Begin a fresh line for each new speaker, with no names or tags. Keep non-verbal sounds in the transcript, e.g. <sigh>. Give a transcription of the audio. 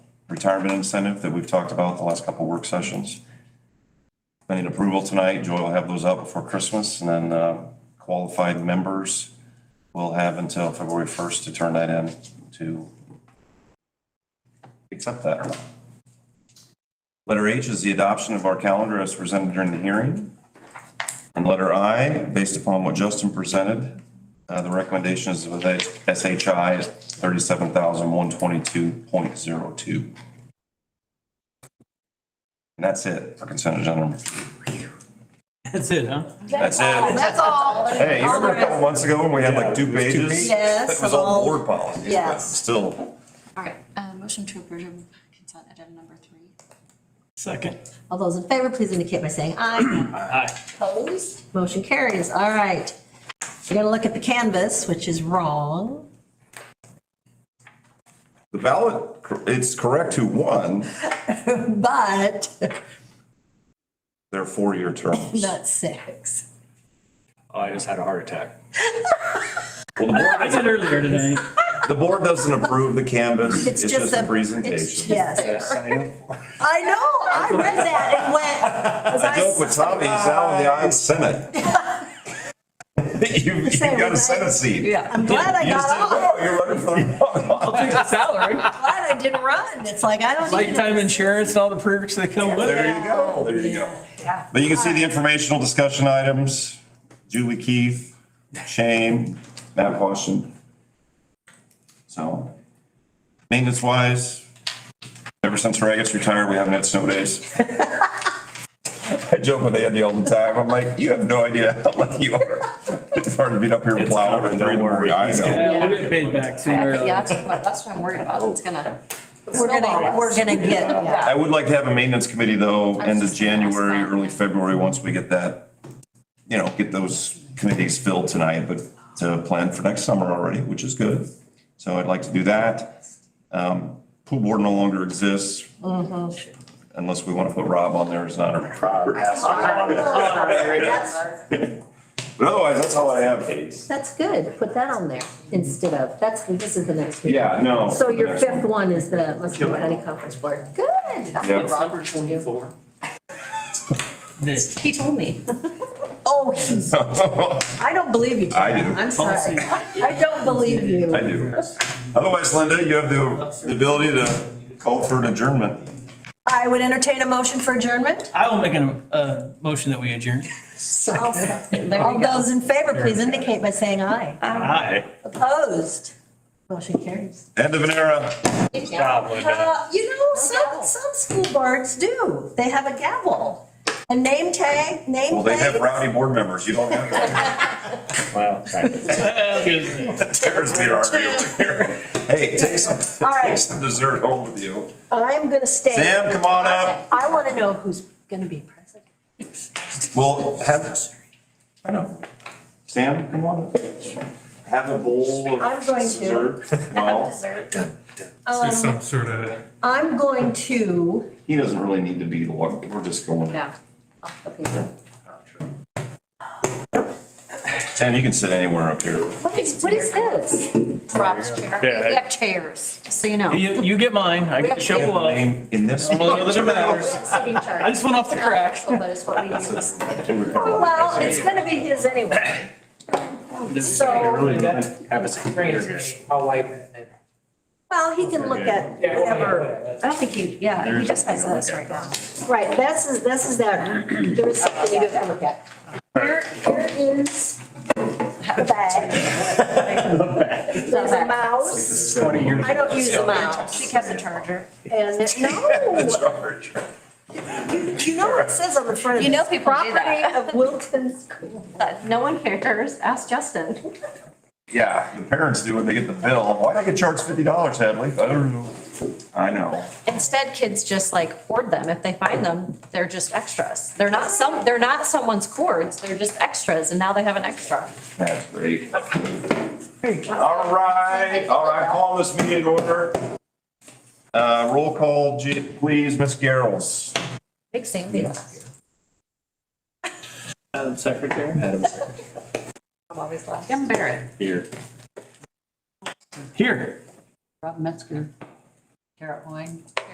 retirement incentive that we've talked about the last couple work sessions. I need approval tonight. Joy will have those out before Christmas and then uh, qualified members will have until February 1st to turn that in to accept that or not. Letter H is the adoption of our calendar as presented during the hearing. And letter I, based upon what Justin presented, uh, the recommendation is with SHI 37,122.02. And that's it for consent agenda number three.
That's it, huh?
That's it.
That's all.
Hey, you remember a couple months ago when we had like two pages?
Yes,
That was all
all-
board policies, but
yes.
still,
All right, uh, motion to approve consent item number three.
Second.
All those in favor, please indicate by saying aye.
Aye.
Opposed? Motion carries. All right. We're gonna look at the canvas, which is wrong.
the ballot, it's correct who won
But <laughs>
their four-year terms.
not six.
Oh, I just had a heart attack.
Well, the board
I did earlier today.
The board doesn't approve the canvas, it's just a
it's-
presentation.
Yes. I know, I read that and
<laughs>
went. was
I joke with Tommy, he's out in the Iowa <laughs> Senate. You, you
Say,
got
right?
a Senate seat.
Yeah, I'm glad I
You just
got
didn't
off.
know, you're running for the <laughs>
I'll take the salary.
Glad I didn't run. It's like, I don't even.
Lifetime insurance and all the perks that come with it.
There you go, there you go. But you can see the informational discussion items, Julie Keith, Shane, Matt Washington. So, maintenance wise, ever since Ragus retired, we haven't had snow days. <laughs> I joke with Andy all the time, I'm like, you have no idea how lucky you are. It's hard to beat up your
It's
plow
covered,
and
don't
three in the morning.
worry.
I know.
Yeah, we'll get paid back sooner or
Yeah,
later.
that's what, that's what I'm worried about, it's gonna.
We're gonna, we're
<laughs>
gonna get,
I would like to have a maintenance committee though,
was
end of
just gonna ask
January,
that.
early February, once we get that, you know, get those committees filled tonight, but to plan for next summer already, which is good. So I'd like to do that. Um, pool board no longer exists.
Mm-hmm.
Unless we want to put Rob on there as an honorary. But otherwise, that's all I have.
that's good. Put that on there instead of, that's, this is the next week.
Yeah, no.
So your
Next one.
fifth one is the Muscatine County Conference Board. Good.
Yeah.
Robert twenty-four.
This.
He told me.
<laughs> Oh, he's- I don't believe you.
I
Tina.
do.
I'm sorry. I don't believe you.
<laughs> I do. Otherwise, Linda, you have the, the ability to call for an adjournment.
I would entertain a motion for adjournment.
I will make an, uh, motion that we adjourn.
All those in favor, please indicate by saying aye.
Aye.
Opposed? Motion carries.
End of an era.
Probably not.
Uh, You know, some, some school boards do. They have a gavel, a name tag, name
Well, they have
plate.
rowdy board members. You don't have that.
<laughs> Well, right.
There's the argument here. Hey, take some,
All right.
take some dessert home with you.
I'm going to stay.
Sam, come on up.
I want to know who's going to be president.
We'll have. I know. Sam, come on up. Have a bowl of.
I'm going to.
dessert. Well,
There's some sort of
I'm going to,
he doesn't really need to be the one. We're just going.
Yeah.
Sam, you can sit anywhere up here.
What is, what is this? Rob's chair.
Yeah.
We have chairs, just so you know.
You, you get mine. I get to shovel up.
Name in this.
Well, it doesn't matter.
Sitting chart.
I just went off the crack.
But it's what we use.
<laughs>
well, it's going to be his anyway. So,
Really didn't have a secretary.
I'll wipe it.
well, he can look at whatever.
I don't think you, yeah, he just has this right now.
Right, this is, this is that, there is something you have to look at. Here, here is the bag. There's a mouse. I don't use a mouse.
She kept the charger.
And, it- no, you know what it says on the front of it?
You know people do
Property
that.
of Wilton's School.
But No one cares, ask Justin.
Yeah, the parents do when they get the bill. Why'd I get charged fifty dollars, Hadley? I don't know. I know.
Instead, kids just like hoard them. If they find them, they're just extras. They're not some, they're not someone's cords, they're just extras and now they have an extra.
That's great. All right, all right, call this meeting to order. Uh, roll call, J- please, Miss Garrels.
Big same thing.
Madam Secretary.
I'm always like, I'm Barrett.
Here.
Here.
Rob Metzger, Garrett Wine.